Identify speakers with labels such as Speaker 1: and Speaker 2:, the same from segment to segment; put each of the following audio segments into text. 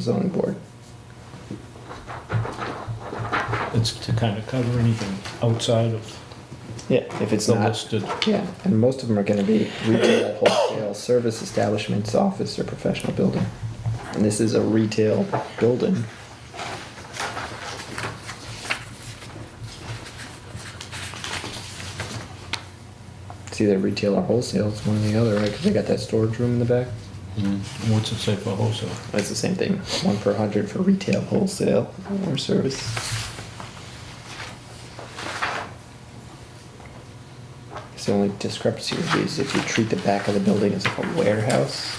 Speaker 1: zoning board.
Speaker 2: It's to kind of cover anything outside of
Speaker 1: Yeah, if it's
Speaker 2: the
Speaker 1: not,
Speaker 2: listed.
Speaker 1: yeah, and most of them are gonna be retail, wholesale, service establishments, office, or professional building. And this is a retail building. It's either retail or wholesale, it's one or the other, right, because they got that storage room in the back? Mm.
Speaker 2: What's it say for wholesale?
Speaker 1: That's the same thing, one per hundred for retail, wholesale, or service. It's the only discrepancy would be is if you treat the back of the building as a warehouse.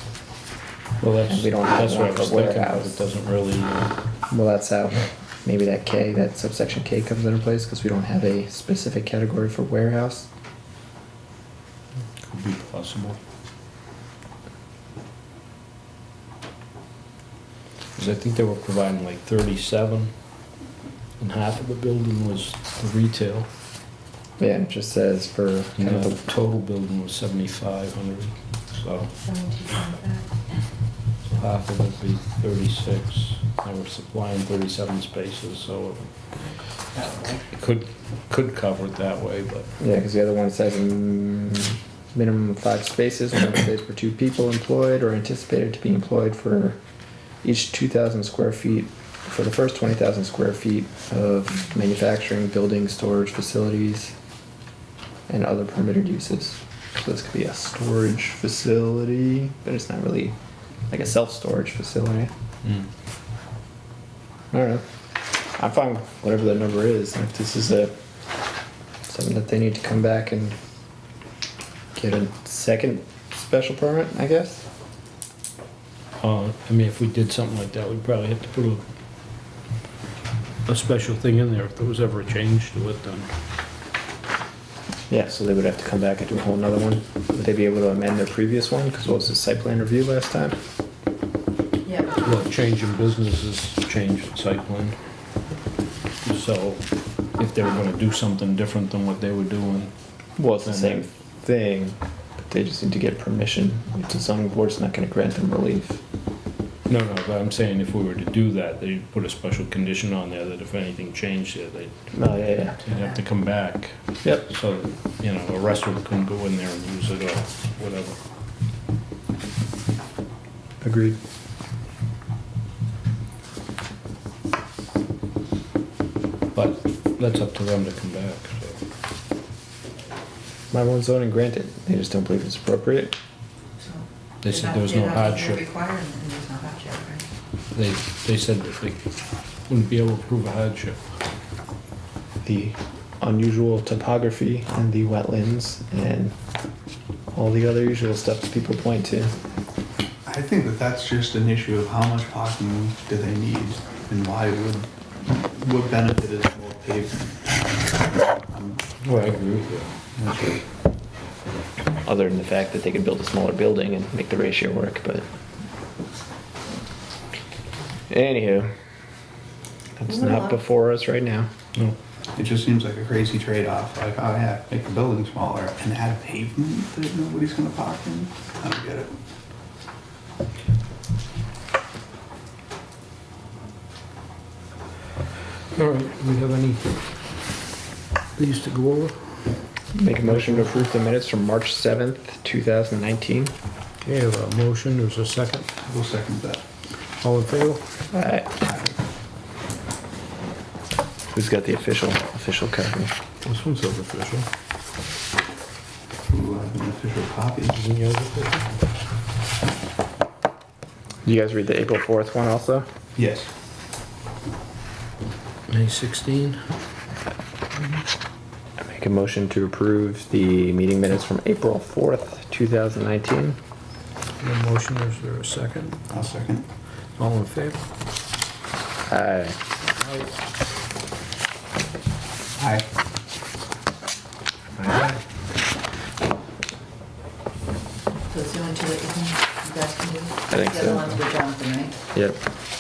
Speaker 2: Well, that's,
Speaker 1: We don't have
Speaker 2: that's what I
Speaker 1: one
Speaker 2: was
Speaker 1: for
Speaker 2: thinking, but
Speaker 1: warehouse.
Speaker 2: it doesn't really, uh,
Speaker 1: Well, that's how, maybe that K, that subsection K comes into place, cause we don't have a specific category for warehouse.
Speaker 2: could be possible. Cause I think they were providing like thirty-seven, and half of the building was the retail.
Speaker 1: Yeah, it just says for
Speaker 2: And
Speaker 1: kind of
Speaker 2: the
Speaker 1: the,
Speaker 2: total building was seventy-five hundred, so, so half of it'd be thirty-six. They were supplying thirty-seven spaces, so it could, could cover it that way, but.
Speaker 1: yeah, cause the other one says mm, minimum of five spaces, one space per two people employed or anticipated to be employed for each two thousand square feet, for the first twenty thousand square feet of manufacturing, building, storage facilities, and other permitted uses. So this could be a storage facility, but it's not really like a self-storage facility. I don't know. I'm fine with whatever that number is. If this is a something that they need to come back and get a second special permit, I guess.
Speaker 2: Uh, I mean, if we did something like that, we'd probably have to put a, a special thing in there if there was ever a change to it, then.
Speaker 1: Yeah, so they would have to come back and do a whole nother one. Would they be able to amend their previous one? Because what was the site plan review last time?
Speaker 3: Yeah,
Speaker 2: Well, change in business is change in site plan. So if they were gonna do something different than what they were doing,
Speaker 1: Well, it's the
Speaker 2: And
Speaker 1: same thing, but they just need to get permission. The zoning board's not going to grant them relief.
Speaker 2: no, no, but I'm saying if we were to do that, they'd put a special condition on there that if anything changed there, they'd,
Speaker 1: Oh, yeah, yeah.
Speaker 2: they'd have to come back.
Speaker 1: Yep.
Speaker 2: So, you know, a restaurant couldn't go in there and use it or whatever.
Speaker 1: Agreed.
Speaker 2: But that's up to them to come back, so.
Speaker 1: My one zoning granted. They just don't believe it's appropriate.
Speaker 3: so.
Speaker 2: They
Speaker 3: they're
Speaker 2: said
Speaker 3: not-
Speaker 2: there was
Speaker 3: they're
Speaker 2: no
Speaker 3: not-
Speaker 2: hardship.
Speaker 3: They're required and there's no hardship, right?
Speaker 2: They, they said that they wouldn't be able to prove a hardship.
Speaker 1: the unusual topography and the wetlands and all the other usual stuff that people point to.
Speaker 4: I think that that's just an issue of how much parking do they need and why would, what benefit is more pavement? Um,
Speaker 2: Well, I agree with you.
Speaker 1: Other than the fact that they could build a smaller building and make the ratio work, but. Anywho, that's
Speaker 3: Moving
Speaker 1: not
Speaker 3: along.
Speaker 1: before us right now.
Speaker 2: No,
Speaker 4: It just seems like a crazy trade-off, like, oh yeah, make the building smaller and add pavement that nobody's gonna park in? I don't get it.
Speaker 2: all right, do we have any, these to go over?
Speaker 1: Make a motion to approve the minutes from March 7th, 2019.
Speaker 2: Okay, I have a motion, there's a second,
Speaker 4: We'll second that.
Speaker 2: all in favor?
Speaker 1: Alright. Who's got the official, official copy?
Speaker 2: This one's over official.
Speaker 4: Ooh, I have an uh, official copy.
Speaker 2: Isn't yours official?
Speaker 1: You guys read the April 4th one also?
Speaker 4: Yes.
Speaker 2: May sixteen,
Speaker 1: I make a motion to approve the meeting minutes from April 4th, 2019.
Speaker 2: the motion, is there a second?
Speaker 4: I'll second.
Speaker 2: All in favor?
Speaker 1: Aye.
Speaker 4: Aye.
Speaker 3: So it's the only two that you can, you guys can do?
Speaker 1: think
Speaker 3: The
Speaker 1: so.
Speaker 3: other ones were Jonathan, right?
Speaker 1: Yep.